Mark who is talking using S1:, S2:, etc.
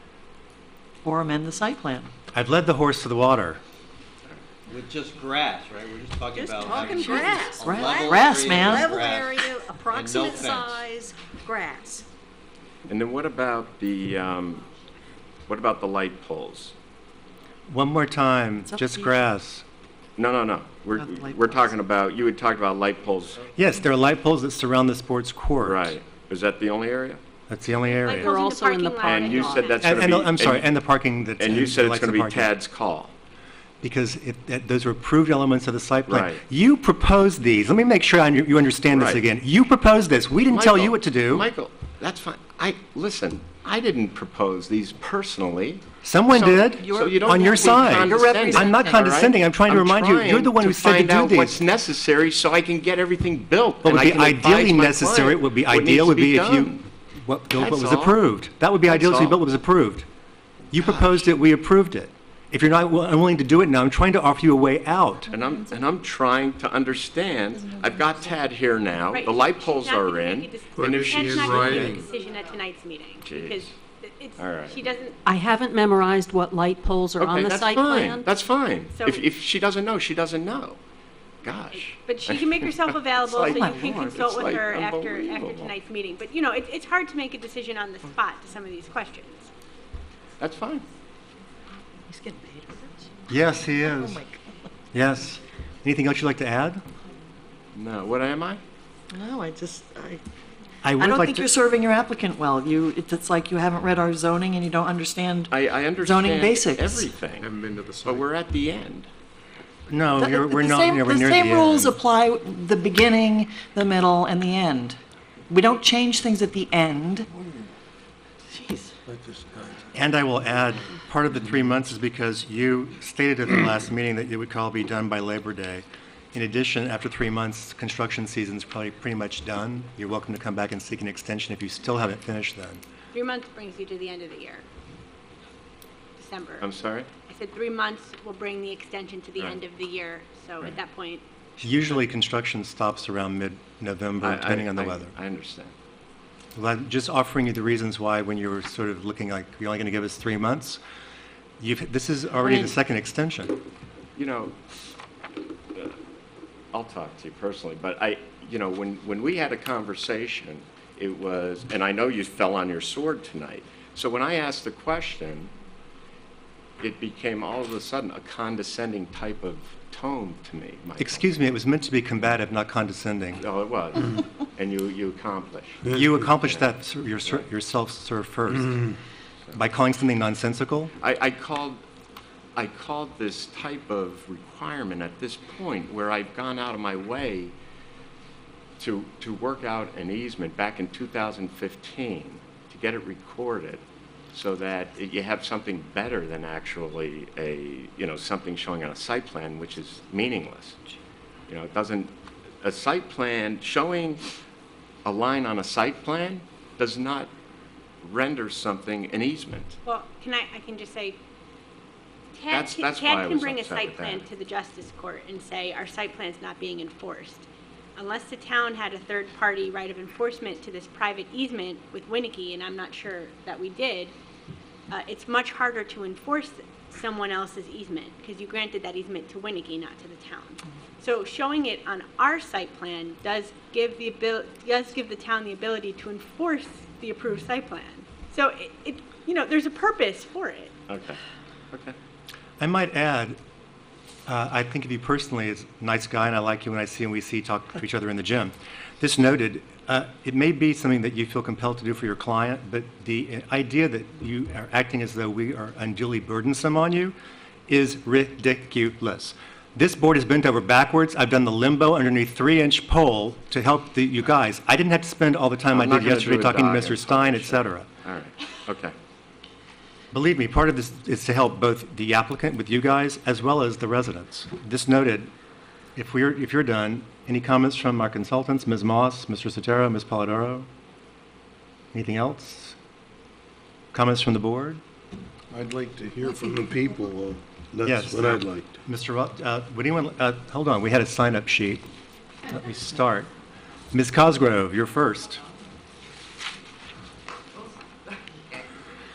S1: or amend the site plan.
S2: I've led the horse to the water.
S3: With just grass, right? We're just talking
S4: Just
S3: about.
S4: talking
S3: having
S4: grass.
S3: a
S1: Grass.
S3: level
S1: Grass,
S3: area of
S1: man.
S4: Level
S3: grass
S4: area,
S3: and no
S4: approximate
S3: fence.
S4: size, grass.
S5: And then what about the, um, what about the light poles?
S2: One more time,
S1: up to
S2: just
S1: you.
S2: grass.
S5: No, no, no. We're,
S1: Not the light
S5: we're
S1: poles.
S5: talking about, you had talked about light poles.
S2: Yes, there are light poles that surround the sports court.
S5: Right. Is that the only area?
S2: That's the only
S6: Like
S2: area.
S7: in
S6: we're
S7: the
S6: also in
S7: parking
S6: the
S7: lot
S6: parking
S5: And you
S6: lot.
S5: said that's
S2: And,
S5: gonna
S2: and
S5: be.
S2: I'm sorry,
S5: and-
S2: and the parking that.
S5: And you said it's gonna be
S2: Tad.
S5: Tad's call.
S2: Because if, that, those are approved elements of the site plan.
S5: Right.
S2: You proposed these. Let me make sure I, under- you understand this
S5: Right.
S2: again. You proposed this. We didn't tell you
S5: Michael,
S2: what to do.
S5: Michael, that's fine. I, listen, I didn't propose these personally.
S2: Someone
S5: So-
S2: did.
S5: So you don't
S2: on your
S5: have to be
S2: side.
S5: condescending,
S6: representing-
S2: I'm not
S5: all right?
S2: condescending. I'm trying to remind you. You're the
S5: trying
S2: one who
S5: to
S2: said to
S5: find
S2: do
S5: out what's
S2: these.
S5: necessary so I can get everything built.
S2: What
S5: and
S2: would
S5: I
S2: be
S5: can advise
S2: ideally
S5: my
S2: necessary
S5: client
S2: would be
S5: what
S2: ideal
S5: needs
S2: would
S5: to
S2: be if you,
S5: done.
S2: what built what
S5: That's
S2: was
S5: all.
S2: approved. That would be ideal
S5: That's
S2: to be built
S5: all.
S2: what was approved. You proposed it. We approved it. If you're not wi- unwilling to do it now, I'm trying to offer you a way out.
S5: And I'm, and I'm trying to understand, I've got Tad here now,
S6: Right.
S5: the light poles
S6: She's not
S5: are
S6: gonna
S5: in.
S6: make a decision.
S5: and if
S6: She is
S8: writing.
S6: Decision at tonight's meeting, because it's,
S5: All right.
S6: she doesn't,
S7: I haven't memorized what light poles are on
S5: Okay,
S7: the
S5: that's
S7: site
S5: fine,
S7: plan.
S5: that's fine.
S6: So-
S5: If, if she doesn't know, she doesn't know. Gosh.
S6: but she can make herself available, so
S5: like-
S6: you
S5: My
S6: can
S5: lord,
S6: consult
S5: it's
S6: with
S5: like
S6: her after, after
S5: unbelievable.
S6: tonight's meeting. But, you know, it's, it's hard to make a decision on the spot to some of these questions.
S5: That's fine.
S4: He's getting paid for this.
S2: Yes, he
S1: Oh,
S2: is. Yes. Anything else you'd like to add?
S5: No, what am I?
S1: No, I just, I,
S2: would
S1: I don't
S2: like
S1: think
S2: to-
S1: you're serving your applicant well. You, it's it's like you haven't read our zoning and you don't understand.
S5: I, I understand
S1: Zoning basics.
S5: everything,
S8: Haven't been to the site.
S5: but we're at the end.
S2: No,
S1: The-
S2: you're, we're
S1: the
S2: not,
S1: same-
S2: you know, we're near
S1: The
S2: the end.
S1: same rules apply, the beginning, the middle, and the end. We don't change things at the end. Jeez.
S2: And I will add, part of the three months is because you stated at the last meeting that it would all be done by Labor Day. In addition, after three months, construction season's probably pretty much done. You're welcome to come back and seek an extension if you still haven't finished then.
S6: Three months brings you to the end of the year, December.
S5: I'm sorry?
S6: I said three months will bring the extension to the
S5: Right.
S6: end of the year, so at that point,
S2: Usually, construction stops around
S5: I-
S2: mid-November,
S5: I-
S2: depending on the
S5: I-
S2: weather.
S5: I understand.
S2: Well, I'm just offering you the reasons why, when you were sort of looking like, you're only going to give us three months, you've, this is already the
S5: Right.
S2: second extension.
S5: you know, uh, I'll talk to you personally, but I, you know, when, when we had a conversation, it was, and I know you fell on your sword tonight. So when I asked the question, it became all of a sudden a condescending type of tone to me. Michael.
S2: Excuse me, it was meant to be combative, not condescending.
S5: Oh, it was. and you, you accomplished.
S2: You accomplish that ser- your ser- yourself, sir, first, by calling something nonsensical.
S5: I, I called, I called this type of requirement at this point where I've gone out of my way to, to work out an easement back in 2015 to get it recorded so that it- you have something better than actually a, you know, something showing on a site plan, which is meaningless. You know, it doesn't, a site plan, showing a line on a site plan does not render something an easement.
S6: Well, can I, I can just say, Tad,
S5: That's-
S6: can-
S5: that's why I
S6: Tad can
S5: was
S6: bring a
S5: upset
S6: site
S5: with that.
S6: plan to the justice court and say, our site plan's not being enforced. Unless the town had a third-party right of enforcement to this private easement with Winnicke, and I'm not sure that we did, uh, it's much harder to enforce someone else's easement, because you granted that easement to Winnicke, not to the town. So showing it on our site plan does give the abil, does give the town the ability to enforce the approved site plan. So it, it, you know, there's a purpose for it.
S5: Okay, okay.
S2: I might add, uh, I think of you personally as a nice guy, and I like you when I see and we see talk to each other in the gym. This noted, uh, it may be something that you feel compelled to do for your client, but the idea that you are acting as though we are unduly burdensome on you is ridiculous. This board is bent over backwards. I've done the limbo underneath three-inch pole to help the, you guys. I didn't have to spend all the time I
S5: I'm not
S2: did
S5: gonna do
S2: yesterday
S5: a
S2: talking to
S5: diet,
S2: Mr. Stein, et
S5: sure.
S2: cetera.
S5: All right, okay.
S2: Believe me, part of this is to help both the applicant with you guys as well as the residents. This noted, if we're, if you're done, any comments from our consultants, Ms. Moss, Mr. Sotero, Ms. Polidoro? Anything else? Comments from the board?
S8: I'd like to hear from the people. uh, That's
S2: Yes.
S8: what I'd like. to.
S2: Mr. Ru- uh, would anyone, uh, hold on, we had a sign-up sheet. Let me start. Ms. Cosgrove, you're first.